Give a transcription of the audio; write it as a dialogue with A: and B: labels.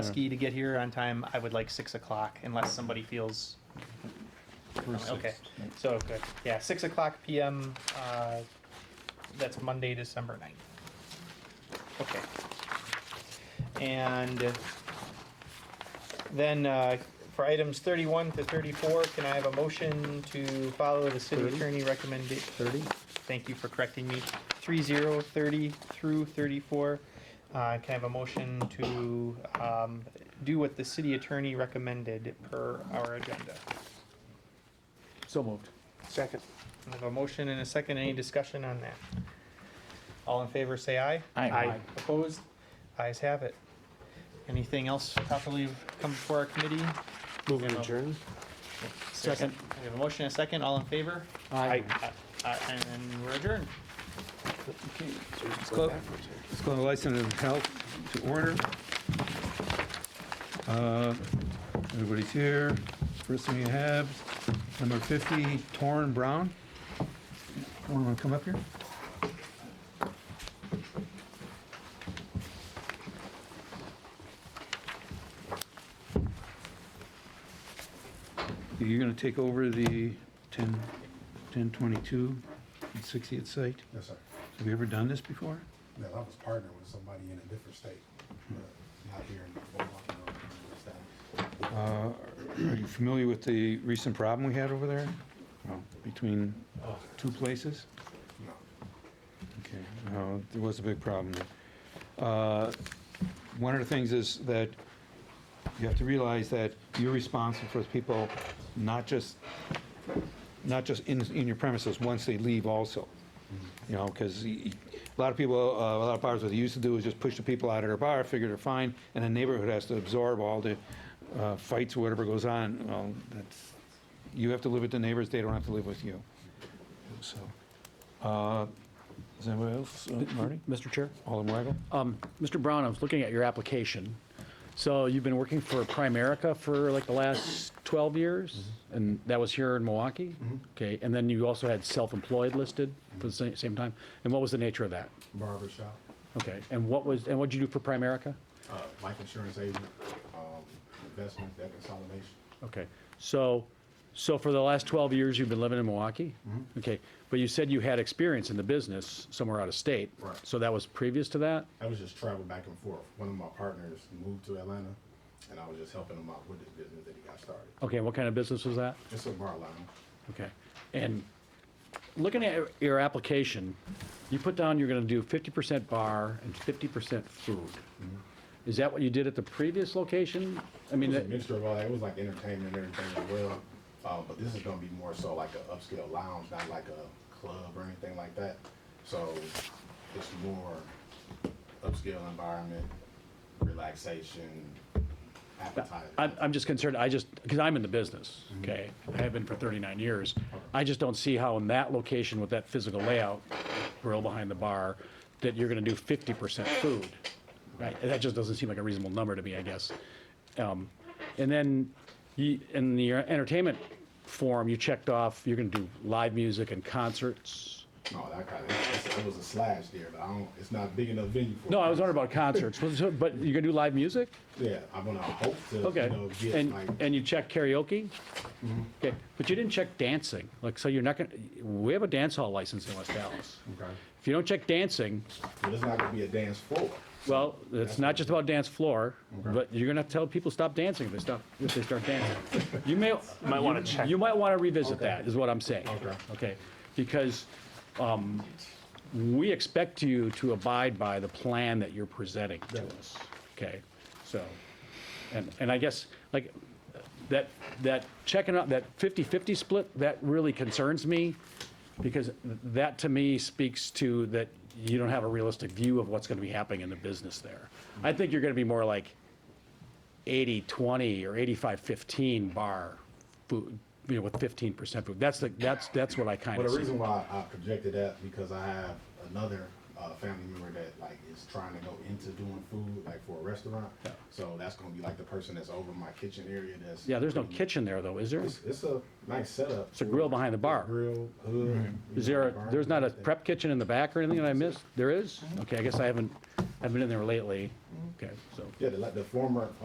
A: ski to get here on time, I would like six o'clock unless somebody feels, okay. So, good, yeah, six o'clock PM, uh, that's Monday, December ninth. Okay. And then, uh, for items thirty-one to thirty-four, can I have a motion to follow the city
B: Thirty?
A: attorney recommendation?
B: Thirty?
A: Thank you for correcting me. Three zero thirty through thirty-four. Uh, can I have a motion to, um, do what the city attorney recommended per our agenda?
B: So moved.
C: Second.
A: I have a motion and a second. Any discussion on that? All in favor, say aye.
B: Aye.
A: Opposed? Ayes have it. Anything else properly come before our committee?
C: Move and adjourn.
B: Second.
A: We have a motion and a second. All in favor?
B: Aye.
A: Uh, and we're adjourned.
C: Let's
D: go Let's call the license of health to order. Uh, Everybody's here. First thing you have, number 50, Torrin Brown. Torrin, want to come up here? You're going to take over the 10, 1022 and 60th site?
E: Yes, sir.
D: Have you ever done this before?
E: No, I was partnered with somebody in a different state, but not here in Beaumont. no, in this town.
D: Uh, Are you familiar with the recent problem we had over there? Well, Between two places?
E: No.
D: Okay, no, there was a big problem. Uh, One of the things is that you have to realize that you're responsible for people, not just, not just in, in your premises, once they leave also. You know, because a lot of people, uh, a lot of bars, what they used to do is just push the people out of their bar, figure they're fine, and the neighborhood has to absorb all the uh, fights or whatever goes on. Well, that's, you have to live with the neighbors, they don't have to live with you. So, uh, is anybody else, Uh, Marty?
B: Mr. Chair?
D: Alderman Weigel?
B: Um, Mr. Brown, I was looking at your application. So you've been working for Primerica for like the last 12 years? And that was here in Milwaukee? Okay, and then you also had self-employed listed for the same, same time? And what was the nature of that?
E: Barber shop,
B: Okay, and what was, and what'd you do for Primerica?
E: uh, life insurance agent, um, investment, debt consolidation.
B: Okay, so, so for the last 12 years, you've been living in Milwaukee? Okay, but you said you had experience in the business somewhere out of state?
E: Right.
B: So that was previous to that?
E: I was just traveling back and forth. One of my partners moved to Atlanta, and I was just helping him out with his business that he got started.
B: Okay, what kind of business was that?
E: It's a bar lounge.
B: Okay, and looking at your application, you put down you're gonna do 50% bar and 50% food. Is that what you did at the previous location? I
E: It
B: mean,
E: was a
B: that-
E: mixture of all that. It was like entertainment and everything as well. Um, but this is gonna be more so like an upscale lounge, not like a club or anything like that. So it's more upscale environment, relaxation, appetite.
B: I'm, I'm just concerned, I just, because I'm in the business, okay? I have been for 39 years. I just don't see how in that location with that physical layout, grill behind the bar, that you're gonna do 50% food. Right, that just doesn't seem like a reasonable number to me, I guess. Um, And then, you, in the entertainment form, you checked off, you're gonna do live music and concerts.
E: No, that kind of, it was a slash there, but I don't, it's not big enough venue for.
B: No, I was wondering about concerts, Was it- but you're gonna do live music?
E: Yeah, I'm gonna hope to, you
B: Okay,
E: know, get
B: and,
E: like,
B: and you check karaoke?
E: Mm-hmm.
B: Okay, but you didn't check dancing, like, so you're not gonna, we have a dance hall license in West Dallas.
E: okay,
B: If you don't check dancing,
E: but it's not gonna be a dance floor.
B: well, it's not just about dance floor, but you're gonna have to tell people stop dancing if they stop, if they start dancing. You may. Might wanna check. You might wanna revisit that, is what I'm saying.
E: Okay.
B: Okay, because, um, we expect you to abide by the plan that you're presenting to us, okay? So, and, and I guess, like, that, that checking out, that 50-50 split, that really concerns me, because that to me speaks to that you don't have a realistic view of what's gonna be happening in the business there. I think you're gonna be more like 80-20 or 85-15 bar food, you know, with 15% food. That's the, that's, that's what I kind
E: But
B: of
E: the
B: see.
E: reason why I projected that because I have another uh, family member that like is trying to go into doing food like for a restaurant. So that's gonna be like the person that's over my kitchen area. That's
B: Yeah, there's no kitchen there though, is there?
E: It's, it's a nice setup. It's
B: a grill behind the bar.
E: Grill hood.
B: Is there, a- there's not a prep kitchen in the back or anything that I missed? There is? Okay, I guess I haven't, haven't been in there lately. Okay, so.
E: Yeah, the, like the former